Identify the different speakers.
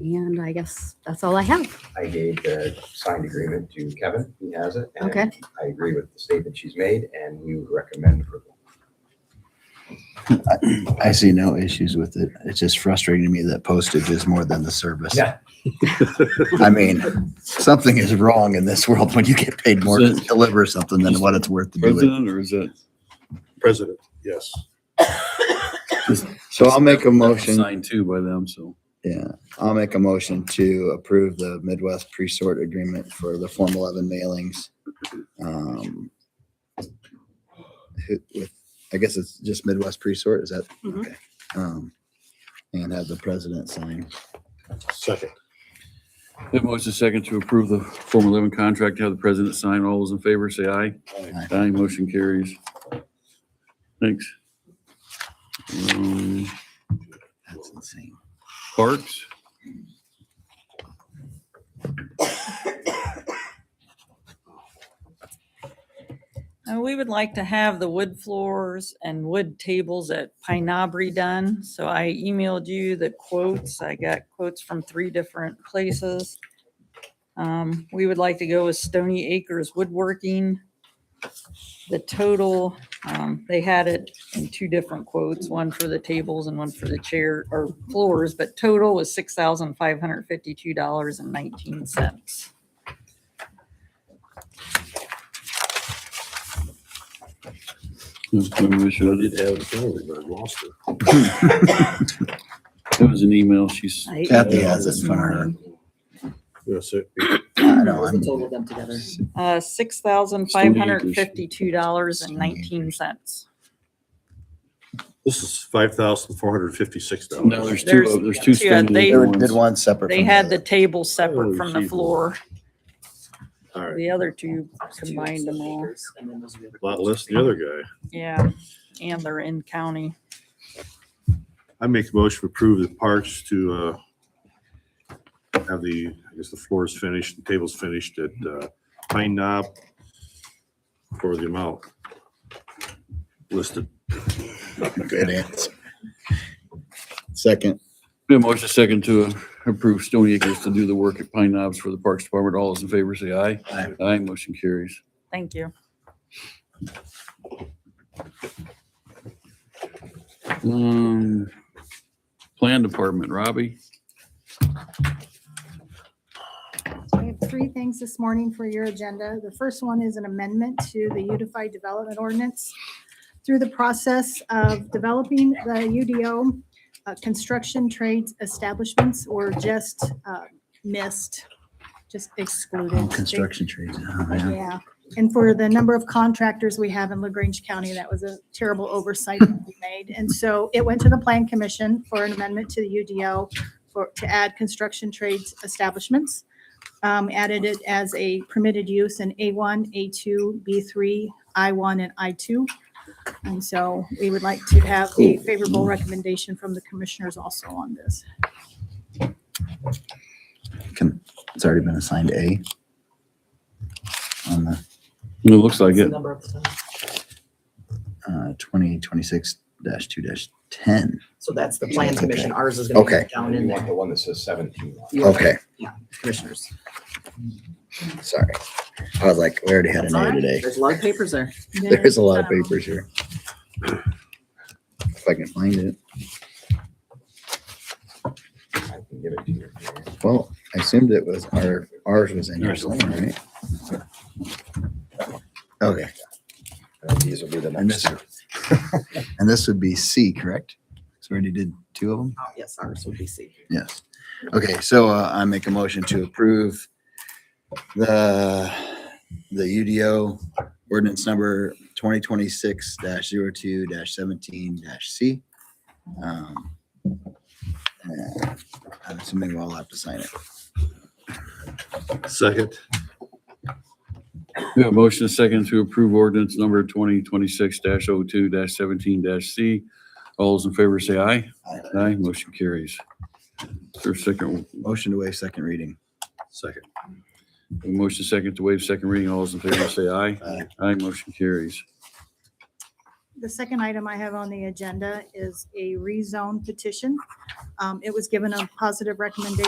Speaker 1: And I guess that's all I have.
Speaker 2: I gave the signed agreement to Kevin. He has it. and
Speaker 1: Okay.
Speaker 2: I agree with the statement she's made and we would recommend approval.
Speaker 3: I see no issues with it. It's just frustrating to me that postage is more than the service.
Speaker 2: Yeah.
Speaker 3: I mean, something is wrong in this world when you get paid more to
Speaker 4: So-
Speaker 3: deliver something than what it's worth to do it.
Speaker 4: President or is that?
Speaker 5: President, yes.
Speaker 3: So I'll make a motion,
Speaker 4: Signed too by them, so.
Speaker 3: yeah, I'll make a motion to approve the Midwest pre-sort agreement for the Form 11 mailings. Um, who- with- I guess it's just Midwest pre-sort, is that?
Speaker 1: Mhm.
Speaker 3: okay? Um, And have the president sign.
Speaker 5: Second,
Speaker 4: Have motion second to approve the Form 11 contract, have the president sign. All those in favor, say aye.
Speaker 3: Aye.
Speaker 4: Aye, motion carries. Thanks. Um,
Speaker 3: That's insane.
Speaker 4: Parks?
Speaker 6: And we would like to have the wood floors and wood tables at Pine Knobbery done. So I emailed you the quotes. I got quotes from three different places. Um, we would like to go with Stony Acres Woodworking. The total, um, they had it in two different quotes, one for the tables and one for the chair or floors, but total was six thousand five hundred fifty-two dollars and nineteen cents.
Speaker 4: We
Speaker 5: I
Speaker 4: should-
Speaker 5: did have it earlier, but I lost it.
Speaker 4: That was an email. She's,
Speaker 3: Kathy has it in front of her.
Speaker 5: Yes, it.
Speaker 3: I
Speaker 7: What
Speaker 3: know,
Speaker 7: was the
Speaker 3: I'm,
Speaker 7: total of them together?
Speaker 6: Uh, six thousand five hundred and fifty-two dollars and nineteen cents.
Speaker 5: This is five thousand four hundred fifty-six
Speaker 4: no, there's
Speaker 5: dollars.
Speaker 4: two, of- there's two uh,
Speaker 6: There's- yeah,
Speaker 4: standing
Speaker 6: they-
Speaker 3: they did
Speaker 4: ones.
Speaker 3: one separate.
Speaker 6: They
Speaker 3: from
Speaker 6: had the
Speaker 3: other.
Speaker 6: table separate
Speaker 5: Oh,
Speaker 6: from the
Speaker 5: geez.
Speaker 6: floor.
Speaker 5: All right,
Speaker 6: The other two
Speaker 7: Two
Speaker 6: combined them all.
Speaker 7: acres, and then those are the other-
Speaker 5: a lot less than the other guy.
Speaker 6: Yeah, and they're in county.
Speaker 5: I make a motion to approve the parks to, uh, have the, I guess the floor is finished, the table's finished at, uh, Pine Knob for the amount listed.
Speaker 3: Good answer. Second,
Speaker 4: We have motion second to approve Stony Acres to do the work at Pine Knobs for the Parks Department. All those in favor, say aye.
Speaker 3: Aye.
Speaker 4: Aye, motion carries.
Speaker 6: Thank you.
Speaker 4: Um, Plan Department, Robbie?
Speaker 8: I have three things this morning for your agenda. The first one is an amendment to the Unified Development Ordinance. Through the process of developing the UDO, uh, construction trades establishments were just uh, missed, just excluded.
Speaker 3: construction trees. Oh, man.
Speaker 8: Yeah, and for the number of contractors we have in LaGrange County, that was a terrible oversight that we made. And so it went to the Plan Commission for an amendment to the UDO for, to add construction trades establishments. Um, added it as a permitted use in A1, A2, B3, I1, and I2. And so we would like to have a favorable recommendation from the commissioners also on this.
Speaker 3: Can- It's already been assigned A. On the
Speaker 4: It looks like
Speaker 7: What's the
Speaker 4: it.
Speaker 7: number of them?
Speaker 3: uh, twenty twenty-six dash two dash ten.
Speaker 7: So that's the plan
Speaker 3: Okay.
Speaker 7: commission. Ours is gonna
Speaker 3: Okay.
Speaker 7: be down in
Speaker 2: You want
Speaker 7: there.
Speaker 2: the one that says seventeen. on it.
Speaker 7: You want
Speaker 3: Okay,
Speaker 7: Commissioners.
Speaker 3: sorry. I was like, we already had an
Speaker 7: That's all
Speaker 3: A
Speaker 7: right.
Speaker 3: today.
Speaker 7: There's a lot of papers there.
Speaker 3: There is a lot of
Speaker 8: um,
Speaker 3: papers here. If I can find it.
Speaker 2: I can give it to you.
Speaker 3: Well, I assumed it was our, ours was in here somewhere, right? Okay,
Speaker 2: And These will be the
Speaker 3: and this,
Speaker 2: next.
Speaker 3: and this would be C, correct? So we already did two of them?
Speaker 7: Oh, Yes, ours would be C.
Speaker 3: Yes. Okay, so uh, I make a motion to approve the, the UDO ordinance number twenty twenty-six dash zero two dash seventeen dash C. Um, and I'm assuming we all have to sign it.
Speaker 5: Second,
Speaker 4: We have motion second to approve ordinance number twenty twenty-six 2 seventeen C. All those in favor, say aye.
Speaker 3: Aye.
Speaker 4: Aye, motion carries. There's second,
Speaker 3: Motion to waive second reading.
Speaker 5: second.
Speaker 4: motion second to waive second reading. All those in favor, say aye.
Speaker 3: Aye.
Speaker 4: Aye, motion carries.
Speaker 8: The second item I have on the agenda is a rezone petition. Um, It was given a positive recommendation